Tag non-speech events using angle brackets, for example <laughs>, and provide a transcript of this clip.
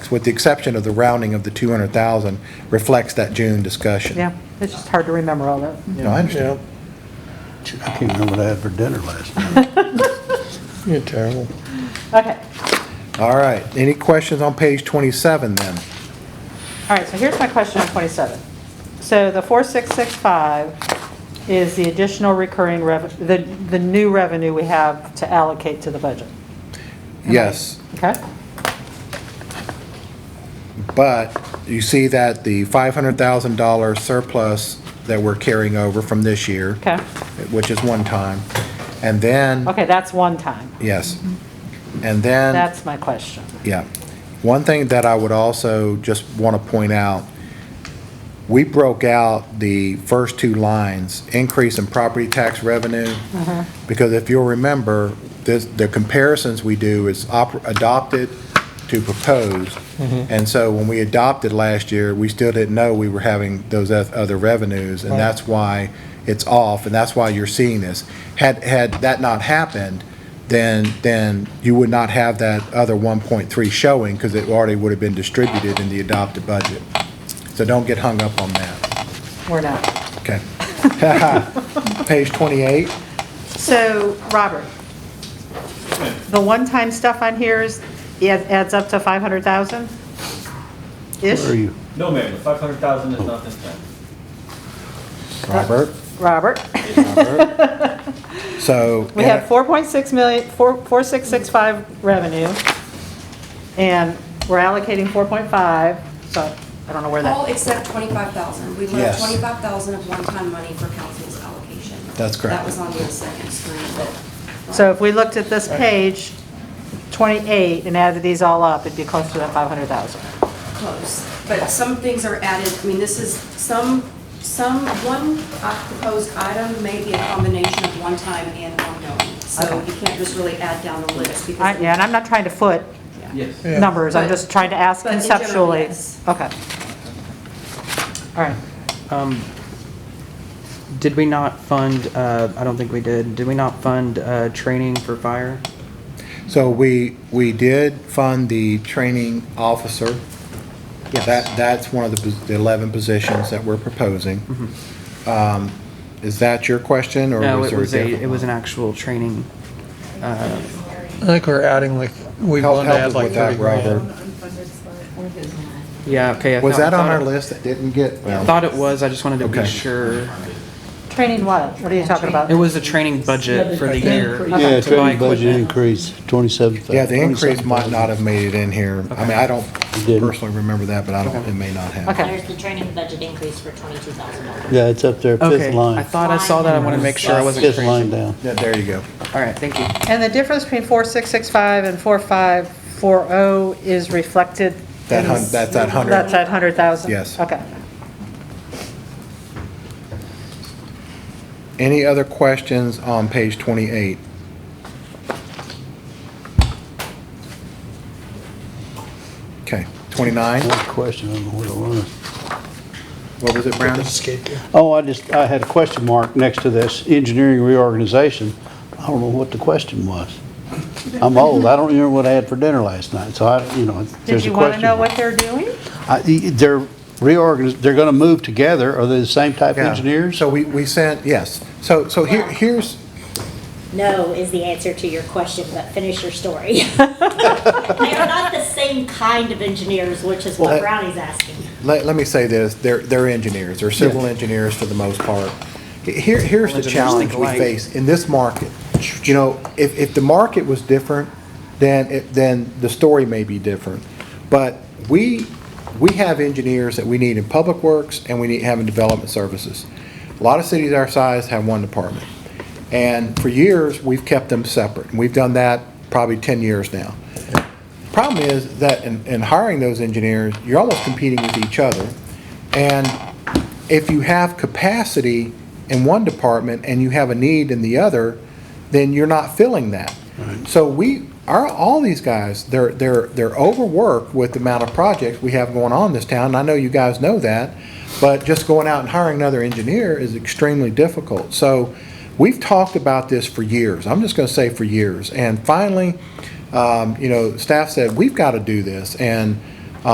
with the exception of the rounding of the 200,000, reflects that June discussion. Yeah, it's just hard to remember all that. You know, I understand. I can't remember what I had for dinner last night. You're terrible. Okay, All right, any questions on page 27 then? all right, so here's my question on 27. So the 4665 is the additional recurring rev, the, the new revenue we have to allocate to the budget, Yes, okay? but you see that the $500,000 surplus that we're carrying over from this year. Okay. Oh. Which is one time. And then, Okay, that's one time. yes. And then. That's my question. Yeah. One thing that I would also just want to point out, we broke out the first two lines, increase in property tax revenue, because if you'll remember, this, the comparisons we do is op- adopted to proposed. And so when we adopted last year, we still didn't know we were having those oth- other revenues, and that's why it's off, and that's why you're seeing this. Had, had that not happened, then, then you would not have that other 1.3 showing, because it already would have been distributed in the adopted budget. So don't get hung up on that. We're not. Okay. <laughs> Page 28, So, Robert, the one-time stuff on here is, it adds up to 500,000? Where are Ish? you? No, ma'am, the five hundred thousand is not this time. Robert. Robert? So. We have 4.6 million, 4- 4665 revenue, and we're allocating 4.5, so I don't know where All that, except 25,000. We Yes. left 25,000 of one-time money for council's allocation. That's correct. That was on the second screen, but. so if we looked at this page, 28, and added these all up, it'd be close to that 500,000. Close. But some things are added, I mean, this is some, some, one uh, proposed item may be a combination of one-time and ongoing. So Okay. you can't just really add down the list I- because. Yeah, and I'm not trying to foot Yes. Yeah. numbers, I'm But- just trying to ask but in general, conceptually. yes. Okay. All right, Did we not fund, uh, I don't think we did, did we not fund, uh, training for fire? So we, we did fund the training officer. Yes. That, that's one of the pos- the 11 positions that we're proposing. Um, Is that your question, or Mm-hmm. No, was it there a was a, different? it was an actual training. I think we're adding like, we Help want to help add us like with that, 30 Robert. grand. Yeah, okay. I Was thought- that on thought our it- list that didn't get? well, I Thought it was, I just wanted to be Okay. sure. training what? What are you talking about? It was a training budget for the year. Yeah, to buy training budget equipment. increase, twenty-seven thousand. Yeah, the increase might not have made it in here. I mean, I don't It didn't. personally remember that, but I don't, it may not have. Okay. There's the training budget increase for twenty-two thousand dollars. Yeah, it's up there, fifth Okay, line. I thought I saw that, I wanted to make sure I wasn't Fifth line crazy. down. Yeah, there you go. All right, thank you. And the difference between 4665 and 4540 is reflected? That in- hun, that's that That's 100. at 100,000? Yes. Okay. Any other questions on page 28? Okay, 29, One question, I don't know where it was. what was it, Brown? Oh, I just, I had a question mark next to this engineering reorganization. I don't know what the question was. I'm old, I don't remember what I had for dinner last night, so I, you know, Did there's a you want to question. know what mark. they're doing? I- They're reorganiz, they're gonna move together, are they the same type of Yeah. engineers? So we, we sent, yes. So, so here, here's, No is the answer to your question, but finish your story. <laughs> They are not the same kind of engineers, which is Well, what that- Brownie's asking. let, let me say this, they're, they're engineers, they're civil engineers for the most part. Here, here's the Engineers think challenge we alike. face in this market. You know, if, if the market was different, then, it- then the story may be different. But we, we have engineers that we need in public works and we need, have in development services. A lot of cities our size have one department. And for years, we've kept them separate. And we've done that probably 10 years now. Problem is that in, in hiring those engineers, you're almost competing with each other. And if you have capacity in one department and you have a need in the other, then you're not filling that. So we, our, all these guys, they're, they're, they're overworked with the amount of projects we have going on in this town. And I know you guys know that, but just going out and hiring another engineer is extremely difficult. So we've talked about this for years. I'm just gonna say for years. And finally, um, you know, staff said, we've got to do this. And